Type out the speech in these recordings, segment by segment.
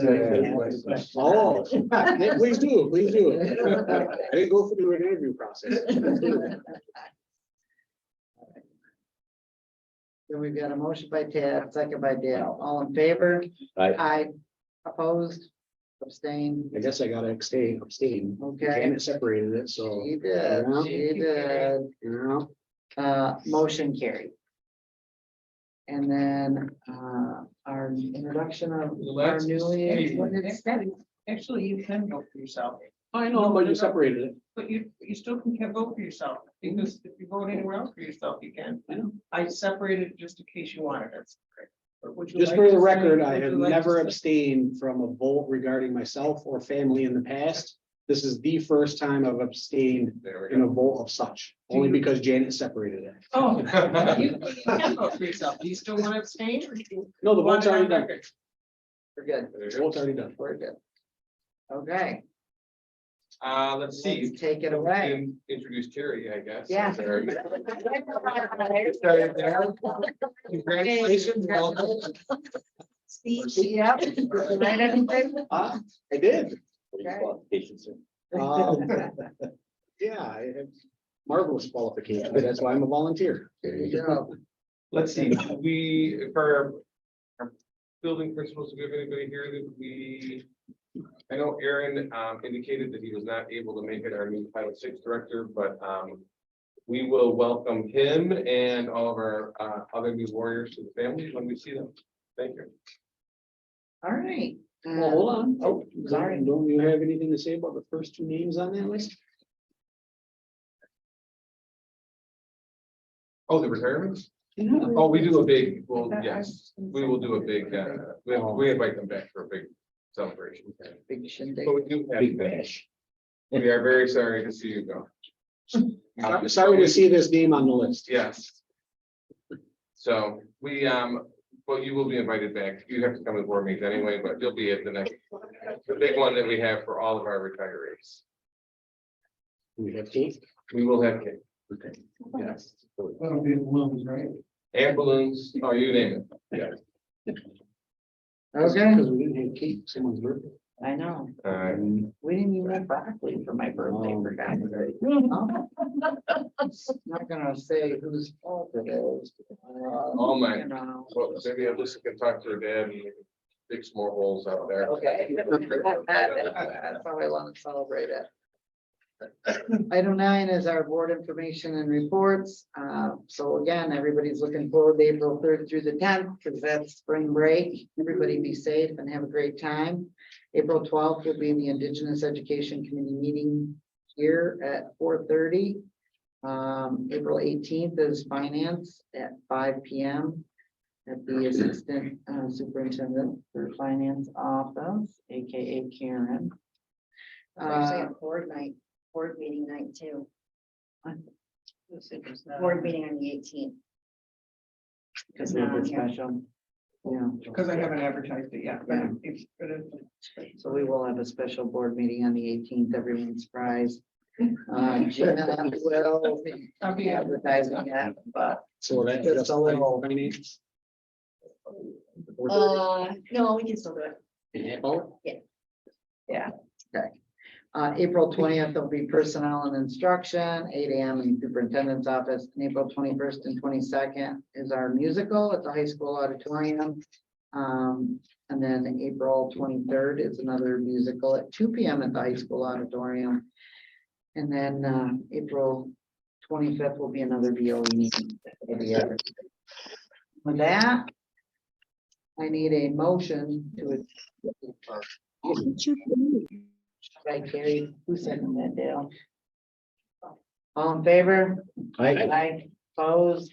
Oh, yeah, please do, please do. I didn't go through an interview process. So we've got a motion by Ted, second by Dale, all in favor? Aye. Aye. Opposed, abstained, I guess I gotta abstain, abstain. okay. Janet separated it, so, She did, she did, you know, uh, motion carried. And then, uh, our introduction of our Let's- newly. hey, what did- next time, Actually, you can vote for yourself, I know, but you separated it. but you, you still can can vote for yourself, because if you vote anywhere else for yourself, you can. I know. I separated just in case you wanted it. But would you Just like for to the say- record, I would you have like to never say- abstained from a vote regarding myself or family in the past. This is the first time I've abstained There we in a go. vote of such, Do only you- because Janet separated it. Oh, you, you can vote for yourself, do you still want to abstain? or do you No, the want vote's it on already done. record? We're good, There The we go. vote's already done. we're good. Okay, Uh, let's see. let's take it away. In- Introduce Terry, I guess. Yeah. There we go. Sorry, Darren. Congratulations. Welcome. Speech, yep. Right, anything? Ah, I did. What are your qualifications, sir? Um, Yeah, I have marvelous qualifications. That's why I'm a volunteer. There you go. Let's see, we, for our building principals, do we have anybody here that we? I know Aaron um, indicated that he was not able to make it our new Title VI Director, but um, we will welcome him and all of our uh, other new warriors to the family when we see them. Thank you. All right. Well, hold on. Oh, sorry. Don't you have anything to say about the first two names on that list? Oh, the retirements? Yeah. Oh, we do a big, well, yes, we will do a big, uh, we we invite them back for a big celebration. Big shindig. But we do Uh, have Big them. bash. We are very sorry to see you go. I'm Sorry to see this name on the list. Yes. So we, um, well, you will be invited back. You have to come to board meetings anyway, but you'll be at the next, the big one that we have for all of our retirees. We have Keith. We will have cake Okay. Yes. That'll be the ones, right? and balloons, oh, you name it. Okay, Because we didn't have Keith, someone's birthday. I know. All right. We didn't even have broccoli for my birthday, for God's Um, sake. Not gonna say whose fault it is. Oh, my. You know. Well, maybe Alyssa can talk to her dad and dig some more holes out there. Okay. That's how I want to celebrate it. Item nine is our board information and reports. Uh, so again, everybody's looking forward to April third through the tenth, because that's spring break. Everybody be safe and have a great time. April twelfth will be the Indigenous Education Committee meeting here at four thirty. Um, April eighteenth is finance at five P M. At the Assistant uh, Superintendent for Finance Office, AKA Karen. Actually, Uh, a board night, board meeting night too, board Board meeting on the eighteenth. Because we did special. Yeah, Because I haven't advertised it yet, but it's, but it's. so we will have a special board meeting on the eighteenth, everyone's surprised. Uh, Gina will be I'll be out. advertising that, but So that. Just a little- Finance. Uh, no, we can still do it. In half hour? uh, April twentieth will be personnel and instruction, eight AM in superintendent's office. And April twenty-first and twenty-second is our musical at the high school auditorium. Um, and then April twenty-third is another musical at two PM at the high school auditorium. And then, uh, April twenty-fifth will be another BOE meeting. for the year. With that, I need a motion to. Right, Carrie, who sent them that down? All in favor? Aye. Opposed,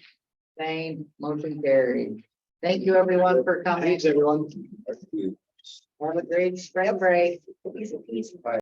same, motion carried. Thank you everyone for coming. Thanks, everyone. Have a great spring break. Easy peasy.